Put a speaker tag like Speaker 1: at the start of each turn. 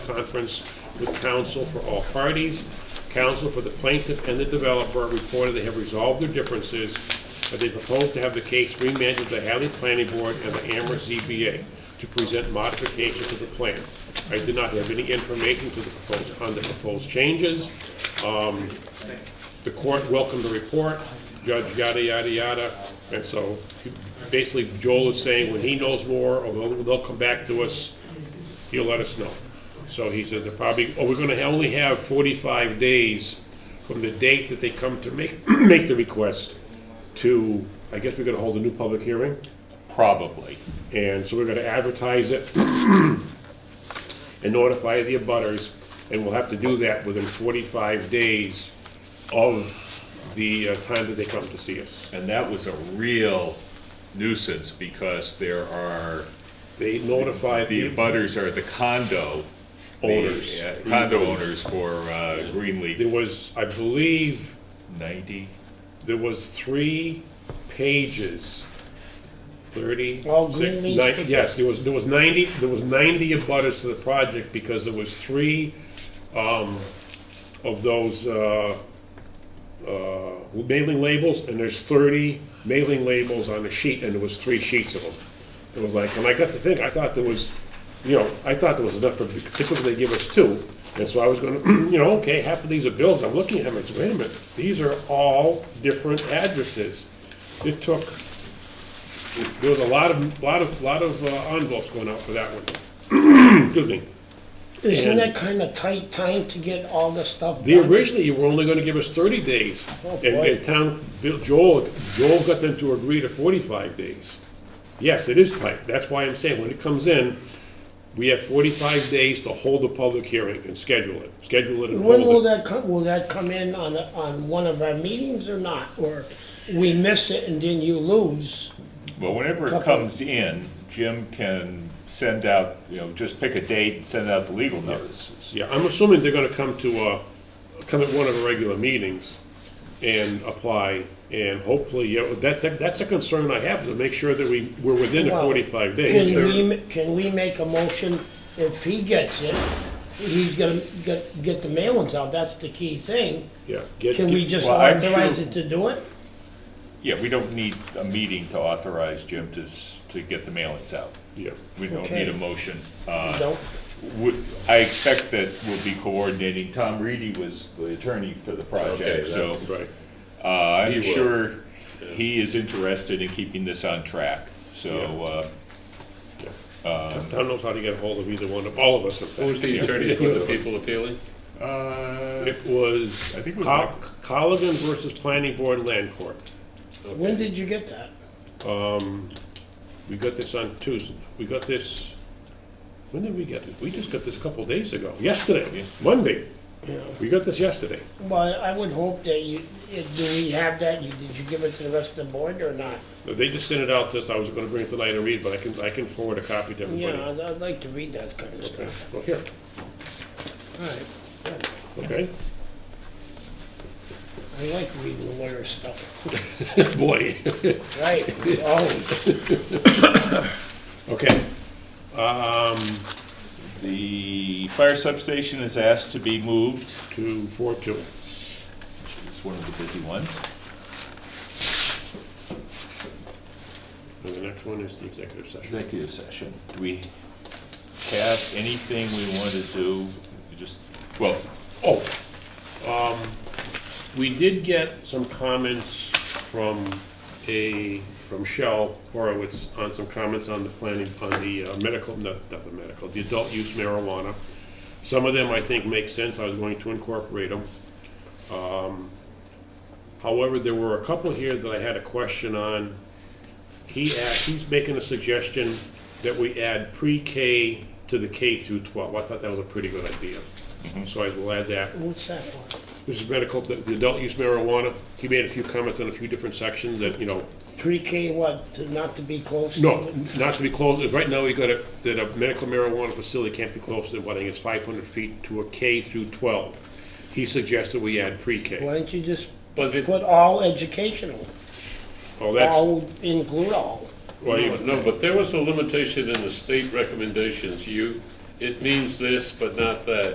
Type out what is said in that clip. Speaker 1: conference with counsel for all parties. Counsel for the plaintiff and the developer reported they have resolved their differences, but they propose to have the case remanded to the Hadley Planning Board and the Amherst ZBA to present modifications to the plan. I did not have any information to the proposed, on the proposed changes. Um, The court welcomed the report, judge yada, yada, yada, and so basically Joel is saying when he knows more, or they'll, they'll come back to us he'll let us know. So he said they're probably, oh, we're gonna only have forty-five days from the date that they come to make, make the request to, I guess we're gonna hold a new public hearing,
Speaker 2: Probably.
Speaker 1: and so we're gonna advertise it and notify the abutters, and we'll have to do that within forty-five days of the uh, time that they come to see us.
Speaker 2: And that was a real nuisance because there are,
Speaker 1: They notify
Speaker 2: the
Speaker 1: the,
Speaker 2: butters are the condo
Speaker 1: Owners.
Speaker 2: the, uh, Condo owners for uh,
Speaker 1: there
Speaker 2: Greenleaf
Speaker 1: was, I believe,
Speaker 2: ninety.
Speaker 1: There was three pages, thirty.
Speaker 3: All green
Speaker 1: six,
Speaker 3: leaves
Speaker 1: nine-
Speaker 3: picked
Speaker 1: Yes, there was, there was ninety, there was ninety abutters to the project because there was three, um, of those, uh, uh, mailing labels, and there's thirty mailing labels on the sheet, and there was three sheets of them. It was like, and I got to think, I thought there was, you know, I thought there was enough, for typically they give us two. And so I was gonna, you know, okay, half of these are bills, I'm looking at them, I said, wait a minute, these are all different addresses. It took, there was a lot of, lot of, lot of uh, envelopes going out for that one. Excuse me.
Speaker 3: Isn't
Speaker 1: And-
Speaker 3: that kind of tight time to get all the stuff
Speaker 1: They
Speaker 3: done?
Speaker 1: originally were only gonna give us thirty days,
Speaker 3: Oh,
Speaker 1: and
Speaker 3: boy.
Speaker 1: the town, Bill- Joel, Joel got them to agree to forty-five days. Yes, it is tight, that's why I'm saying, when it comes in, we have forty-five days to hold a public hearing and schedule it, schedule it and
Speaker 3: When will
Speaker 1: hold it.
Speaker 3: that come, will that come in on, a- on one of our meetings or not? Or we miss it and then you lose?
Speaker 2: Well, whenever it
Speaker 3: Couple.
Speaker 2: comes in, Jim can send out, you know, just pick a date and send out the legal notices.
Speaker 1: Yeah, I'm assuming they're gonna come to, uh, come at one of the regular meetings and apply, and hopefully, yeah, that's, that's a concern I have, to make sure that we, we're within the
Speaker 3: Well,
Speaker 1: forty-five days.
Speaker 3: Can we, ma- can we make a motion, if he gets it, he's gonna get, get the mailings out, that's the key thing.
Speaker 1: Yeah, get-
Speaker 3: Can we just
Speaker 2: Well, I'm sure-
Speaker 3: authorize it to do it?
Speaker 2: Yeah, we don't need a meeting to authorize Jim to, s- to get the mailings out.
Speaker 1: Yeah.
Speaker 2: We don't
Speaker 3: Okay.
Speaker 2: need a motion. uh,
Speaker 3: Don't,
Speaker 2: Would- I expect that we'll be coordinating. Tom Reedy was the attorney for the project,
Speaker 4: Okay,
Speaker 2: so
Speaker 4: that's-
Speaker 1: Right.
Speaker 2: uh, I'm
Speaker 4: He will.
Speaker 2: sure he is interested in keeping this on track. So, uh,
Speaker 1: Town knows how to get hold of either one of, all of us, in fact.
Speaker 4: Who was the attorney for the people appealing?
Speaker 2: uh,
Speaker 1: It was
Speaker 2: I think it was
Speaker 1: Col- Colligan versus Planning Board Land Court.
Speaker 3: when did you get that?
Speaker 1: We got this on Tuesday, we got this, when did we get this? We just got this a couple days ago, yesterday,
Speaker 2: Yesterday.
Speaker 1: Monday.
Speaker 3: Yeah.
Speaker 1: We got this yesterday.
Speaker 3: Well, I would hope that you, if- do we have that, You- did you give it to the rest of the board or not?
Speaker 1: They just sent it out this, I was gonna bring it tonight and read, but I can, I can forward a copy to
Speaker 3: Yeah,
Speaker 1: everybody.
Speaker 3: I'd, I'd like to read that kind of
Speaker 1: Okay,
Speaker 3: stuff.
Speaker 1: Well, here,
Speaker 3: All right, good.
Speaker 1: okay?
Speaker 3: I like reading the lawyer stuff.
Speaker 1: Boy.
Speaker 3: Right, always.
Speaker 1: Okay,
Speaker 2: Um, the fire substation is asked to be moved.
Speaker 1: two, four, two.
Speaker 2: It's one of the busy ones.
Speaker 1: And the next one is the executive session.
Speaker 2: Executive session. Do we have anything we want to do? We Just, well,
Speaker 1: Oh, um, we did get some comments from a, from Shell Horowitz on some comments on the planning, on the uh, medical, no, not the medical, the adult use marijuana. Some of them I think make sense, I was going to incorporate them. However, there were a couple here that I had a question on. He asked, he's making a suggestion that we add pre-K to the K through 12. I thought that was a pretty good idea. So I will add that.
Speaker 3: What's that for?
Speaker 1: This is medical, the the adult use marijuana, he made a few comments on a few different sections that, you know,
Speaker 3: Pre-K what, to not to be close? to
Speaker 1: no,
Speaker 3: it?
Speaker 1: not to be closed, right now, we got it, that a medical marijuana facility can't be closer than, what, I think it's 500 feet to a K through 12. He suggested we add pre-K.
Speaker 3: Why don't you just
Speaker 4: But it,
Speaker 3: put all educational,
Speaker 1: Oh, that's,
Speaker 3: all include all?
Speaker 1: well, you-
Speaker 4: no, but there was a limitation in the state recommendations. You it means this, but not that.